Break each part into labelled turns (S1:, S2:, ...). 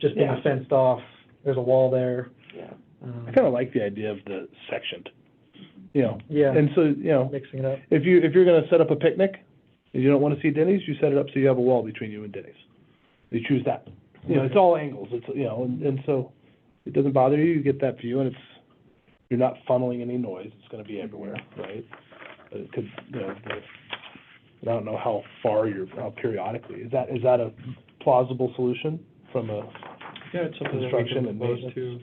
S1: just being
S2: Yeah.
S1: fenced off, there's a wall there.
S2: Yeah.
S1: um,
S3: I kind of like the idea of the sectioned, you know,
S1: Yeah,
S3: and so, you know,
S1: mixing it up.
S3: if you, if you're gonna set up a picnic, and you don't wanna see Denny's, you set it up so you have a wall between you and Denny's. You choose that, you know, it's all angles, it's, you know, and, and so, it doesn't bother you, you get that view, and it's, you're not funneling any noise, it's gonna
S1: Mm-hmm.
S3: be everywhere, right? But it could, you know, the- and I don't know how far you're, how periodically, is that, is that a plausible solution from a,
S4: Yeah, it's something that we
S3: Construction
S4: can
S3: and
S4: propose to,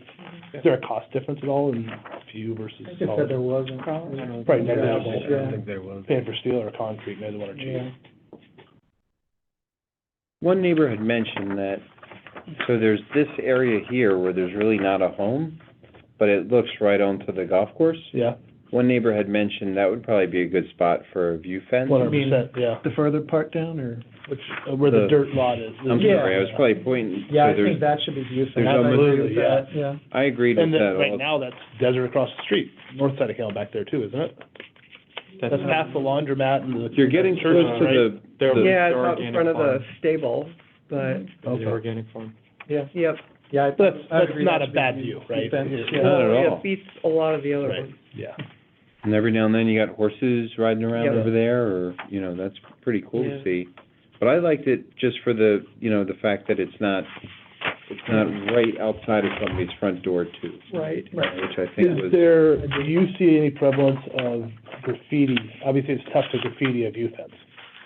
S3: is there a cost difference at all in few versus
S1: I just said there
S3: solid?
S1: wasn't.
S3: Probably
S1: Yeah,
S3: negligible.
S1: yeah.
S5: there was.
S3: Paying for steel or concrete, neither one are cheap.
S1: Yeah.
S5: One neighbor had mentioned that, so there's this area here where there's really not a home, but it looks right onto the golf course.
S3: Yeah,
S5: One neighbor had mentioned that would probably be a good spot for a view fence.
S3: one hundred percent, yeah,
S4: the further part down, or?
S3: which, uh, where the
S5: The-
S3: dirt lot is.
S5: I'm
S1: Yeah.
S5: sorry, I was probably pointing, so
S1: Yeah, I
S5: there's,
S1: think that should be beautiful.
S5: there's
S1: I agree
S3: almost-
S1: with
S3: yeah.
S1: that, Yeah.
S5: I agreed with
S3: And
S5: that.
S3: then, right
S5: all-
S3: now, that's desert across the street, north side of Canal back there too, isn't it? That's past the laundromat and the.
S5: You're getting
S3: church,
S5: close to the, the-
S6: Yeah, it's out in front of the stable, but,
S4: The organic farm.
S6: yep,
S1: Mm-hmm. Yeah. I-
S3: That's,
S1: I
S3: that's
S1: agree
S3: not
S1: that
S3: a
S1: should be
S3: bad
S1: beaut-
S3: view, right?
S1: fence.
S3: Yeah.
S5: Not at all.
S6: it beats a lot of the other
S3: Right.
S6: ones.
S3: Yeah.
S5: and every now and then you got horses riding around
S6: Yeah.
S5: over there, or, you know, that's pretty cool to
S4: Yeah.
S5: see. But I liked it just for the, you know, the fact that it's not, it's not right outside of somebody's front door too.
S6: Right.
S5: Which I think
S3: Is
S5: was.
S3: there, do you see any prevalence of graffiti? Obviously, it's tough to graffiti a view fence.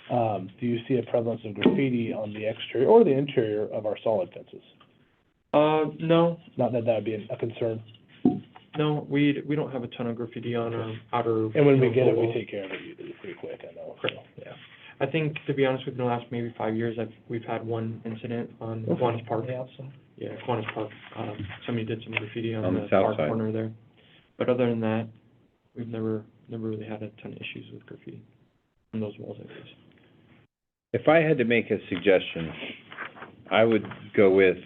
S3: Um, do you see a prevalence of graffiti on the exterior or the interior of our solid fences?
S4: Uh, no,
S3: Not that that would be a concern,
S4: no, we, we don't have a ton of graffiti on um, our outer.
S3: and when we get it, we
S4: walls.
S3: take care of it usually pretty quick, I know, so, yeah.
S4: I think, to be honest, within the last maybe five years, I've, we've had one incident on
S3: Okay.
S4: Kiwanis Park.
S1: Yeah, so-
S4: Yeah, Kiwanis Park, um, somebody did some graffiti on
S5: On the
S4: the
S5: south
S4: far
S5: side.
S4: corner there. But other than that, we've never, never really had a ton of issues with graffiti on those walls, I guess.
S5: If I had to make a suggestion, I would go with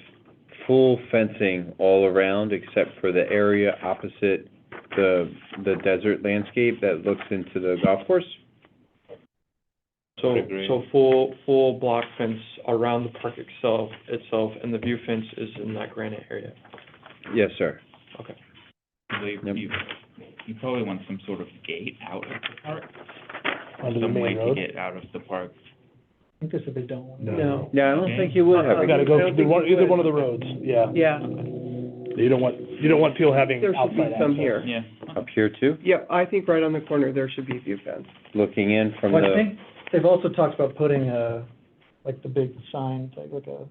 S5: full fencing all around except for the area opposite the, the desert landscape that looks into the golf course.
S4: So,
S5: Would agree.
S4: so full, full block fence around the park itself, itself, and the view fence is in that granite area.
S5: Yes, sir.
S4: Okay.
S7: They-
S5: Yep.
S7: You, you probably want some sort of gate out of the park,
S3: Under the
S7: some way
S3: main
S7: to
S3: road.
S7: get out of the park.
S1: I think this is a big don't want.
S6: No.
S5: Yeah, I don't think you would have
S3: We
S5: a
S3: gotta
S6: I
S3: go
S6: don't
S3: through
S6: think
S3: one,
S6: you
S3: either
S6: would.
S3: one of the roads, yeah.
S6: Yeah,
S3: You don't want, you don't want people having
S6: there should
S3: outside
S6: be some
S3: access.
S6: here.
S7: Yeah.
S5: up here too,
S6: Yep, I think right on the corner, there should be a view fence.
S5: looking in from
S1: Well, I
S5: the,
S1: think they've also talked about putting a, like the big sign, like like a,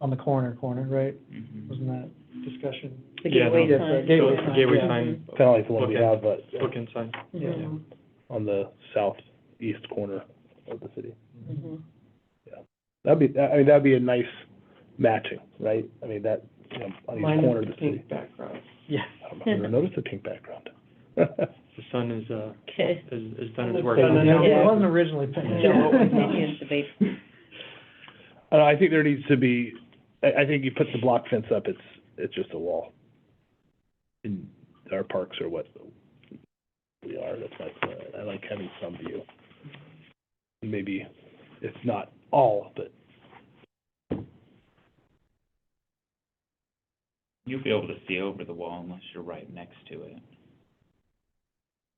S1: on the corner corner, right?
S7: Mhm.
S1: Wasn't that discussion?
S6: The
S4: Yeah,
S6: gateway
S1: no.
S6: sign.
S1: Gateway
S4: So,
S1: sign,
S4: Gateway
S1: yeah.
S4: sign,
S3: Kinda like the one we
S4: Okay.
S3: have, but
S4: book inside.
S1: Yeah.
S4: Mm-hmm.
S6: Mhm.
S3: on the southeast corner of the city.
S6: Mhm.
S3: That'd be, I mean, that'd be a nice matching, right? I mean, that, you know, on each
S6: Mine
S3: corner of
S6: is
S3: the
S6: the
S3: city.
S6: pink background.
S1: Yeah.
S3: I don't know, I've never noticed the pink background.
S4: The sun is, uh,
S8: Okay.
S4: is, is done
S6: Looks
S4: its work.
S6: like
S1: Yeah, It
S6: Yeah.
S1: wasn't originally painted.
S8: No, continues to be.
S3: Uh, I think there needs to be, I, I think you put the block fence up, it's, it's just a wall. And our parks are what we are, that's my, plan. I like having some view. Maybe it's not all, but
S7: You'll be able to see over the wall unless you're right next to it.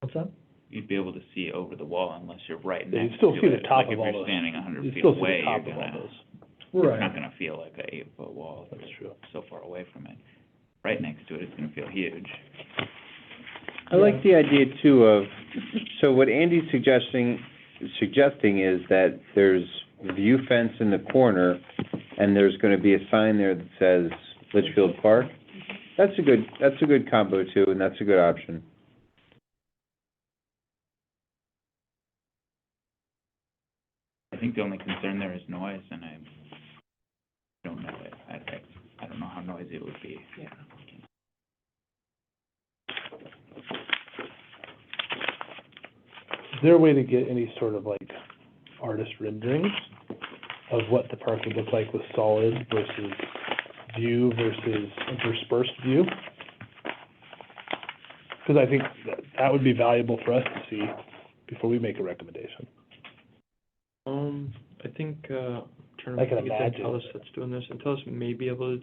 S1: What's that?
S7: You'd be able to see over the wall unless you're right
S3: Yeah, you
S7: next to
S3: still
S7: it.
S3: see the top of all
S7: Like if
S3: those.
S7: you're standing a hundred
S3: you
S7: feet
S3: still see
S7: away,
S3: the
S7: you're
S3: top of all
S7: gonna,
S3: those.
S7: it's not
S1: Right.
S7: gonna feel like a eight foot wall, if
S3: That's
S7: you're
S3: true.
S7: so far away from it. Right next to it, it's gonna feel huge.
S5: I like the idea too of, so what Andy's suggesting, suggesting is that there's view fence in the corner, and there's gonna be a sign there that says Litchfield Park. That's a good, that's a good combo too, and that's a good option.
S7: I think the only concern there is noise, and I don't know it. I, I, I don't know how noisy it would be.
S3: Is there a way to get any sort of like artist renderings of what the park would look like with solid versus view versus interspersed view? Because I think that, that would be valuable for us to see before we make a recommendation.
S4: Um, I think, uh, I'm trying
S3: I
S4: to
S3: can
S4: think uh, if
S3: imagine.
S4: Intellis that's doing this, Intellis may be able to